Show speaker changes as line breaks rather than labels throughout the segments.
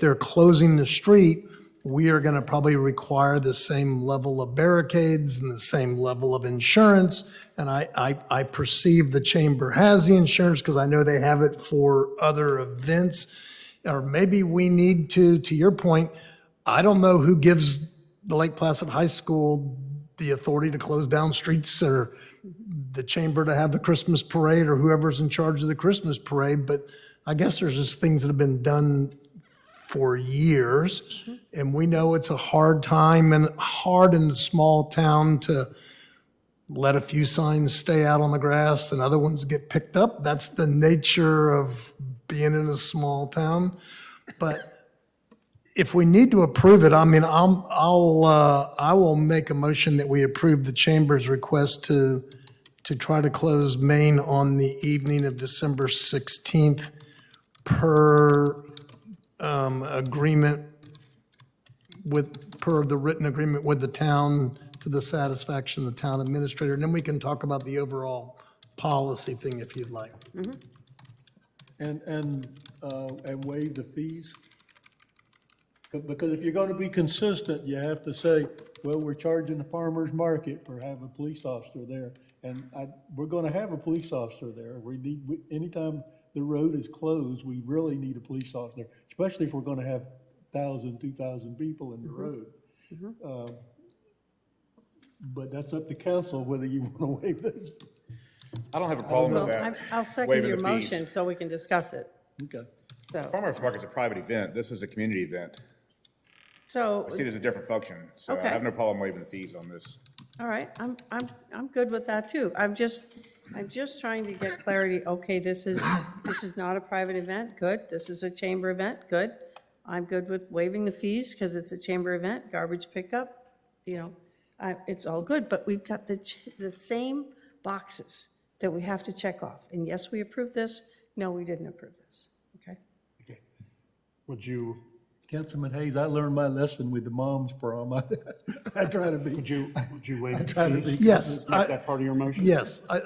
they're closing the street, we are going to probably require the same level of barricades and the same level of insurance. And I, I, I perceive the chamber has the insurance because I know they have it for other events. Or maybe we need to, to your point, I don't know who gives the Lake Placid High School the authority to close down streets or the chamber to have the Christmas parade or whoever's in charge of the Christmas parade. But I guess there's just things that have been done for years, and we know it's a hard time and hard in a small town to let a few signs stay out on the grass and other ones get picked up. That's the nature of being in a small town. But if we need to approve it, I mean, I'm, I'll, uh, I will make a motion that we approve the chamber's request to, to try to close Maine on the evening of December 16th per agreement with, per the written agreement with the town, to the satisfaction of the town administrator, and then we can talk about the overall policy thing if you'd like.
And, and, uh, and waive the fees? Be- Because if you're gonna be consistent, you have to say, well, we're charging the farmer's market for having a police officer there. And I, we're gonna have a police officer there. We need, we- anytime the road is closed, we really need a police officer, especially if we're gonna have thousand, two thousand people in the road. Um, But that's up to council whether you wanna waive those.
I don't have a problem with
Oh, Well,
that.
I- I'll second
waiving
your
the fees.
motion so we can discuss it.
Okay.
So,
Farmers market's a private event. This is a community event.
so,
I see it as a different function, so I
Okay.
have no problem waiving the fees on this.
all right, I'm, I'm, I'm good with that too. I'm just, I'm just trying to get clarity. Okay, this is, this is not a private event, good. This is a chamber event, good. I'm good with waiving the fees because it's a chamber event, garbage pickup, you know, I, it's all good, but we've got the, ch- the same boxes that we have to check off. And yes, we approved this, no, we didn't approve this, okay?
Would you,
Councilman Hayes, I learned my lesson with the mom's prom. I, I try to be.
Would you, would you waive
try to
the
be
fees?
Yes,
Make
I,
that part of your motion?
yes, I, I-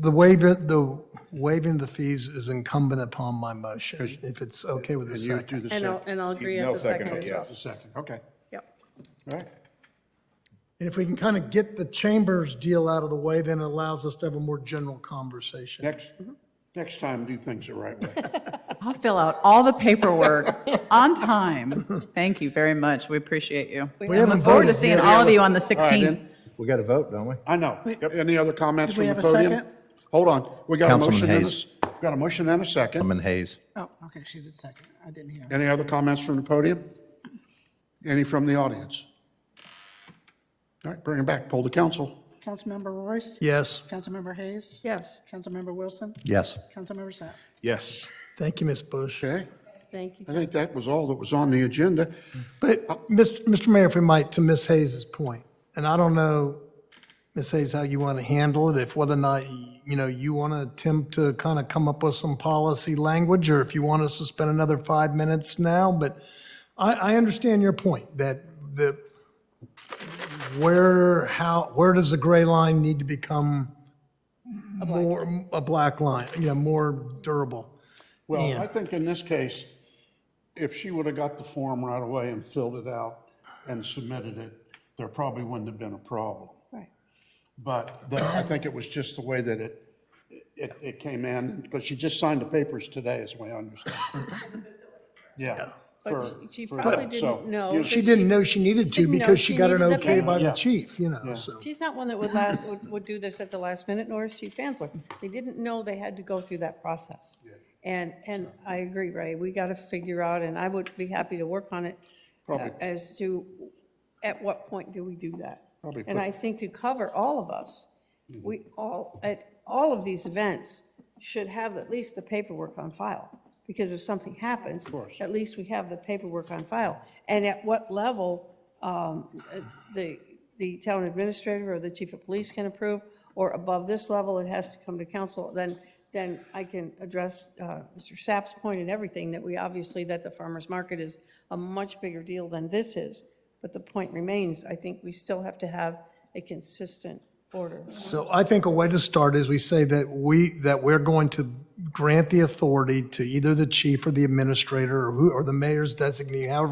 the waiver, the waiving of the fees is incumbent upon my motion, if it's okay with the
And you do
second.
the
And I'll,
second,
and I'll agree at
No
the second
second,
as well.
yes.
the second, okay.
Yep.
All right.
And if we can kind of get the chambers deal out of the way, then it allows us to have a more general conversation.
Next, next time, do things the right way.
I'll fill out all the paperwork on time. Thank you very much. We appreciate you.
We haven't
Look forward to
voted
seeing
yet.
all of you on the
All right,
16th.
then.
We got to vote, don't we?
I know. Any other comments
Do
from
we
the
have a
podium?
second?
Hold on. We got a
Councilman
motion and a,
Hayes.
s- got a motion and a second.
Councilman Hayes.
Oh, okay, she did second. I didn't hear.
Any other comments from the podium? Any from the audience? All right, bring it back. Poll the council.
Councilmember Royce?
Yes,
Councilmember Hayes?
Yes,
Councilmember Wilson?
Yes.
Councilmember Sapp?
Yes.
thank you, Ms. Bush.
Okay,
thank you.
I think that was all that was on the agenda.
But, Mr. Mr. Mayor, if we might, to Ms. Hayes's point, and I don't know, Ms. Hayes, how you want to handle it, if whether or not, you know, you want to attempt to kind of come up with some policy language, or if you want us to spend another five minutes now, but I, I understand your point, that the, where, how, where does the gray line need to become more, a black line, you know, more durable?
Well, I think in this case, if she would have got the form right away and filled it out and submitted it, there probably wouldn't have been a problem.
Right.
But the- I think it was just the way that it, it, it came in, because she just signed the papers today, is the way I understand. Yeah. for-
But she
for
probably
that, so,
didn't know
you-
that
She didn't know she needed to
Didn't know
because she
she
got an
needed the
okay by the
Yeah.
chief, you know, so.
She's not one that would last, would, would do this at the last minute, nor is she Fansler. They didn't know they had to go through that process. And, and I agree, Ray, we got to figure out, and I would be happy to work on it uh, as to, at what point do we do that?
Probably
And
put- Mm-hmm.
I think to cover all of us, we all, at all of these events, should have at least the paperwork on file. Because if something happens, at least we have the paperwork on file. And at what level um, uh, the, the town administrator or the chief of police can approve, or above this level, it has to come to council, then, then I can address uh, Mr. Sapp's point and everything, that we, obviously, that the farmer's market is a much bigger deal than this is. But the point remains, I think we still have to have a consistent order.
So I think a way to start is we say that we, that we're going to grant the authority to either the chief or the administrator or who, or the mayor's designee, however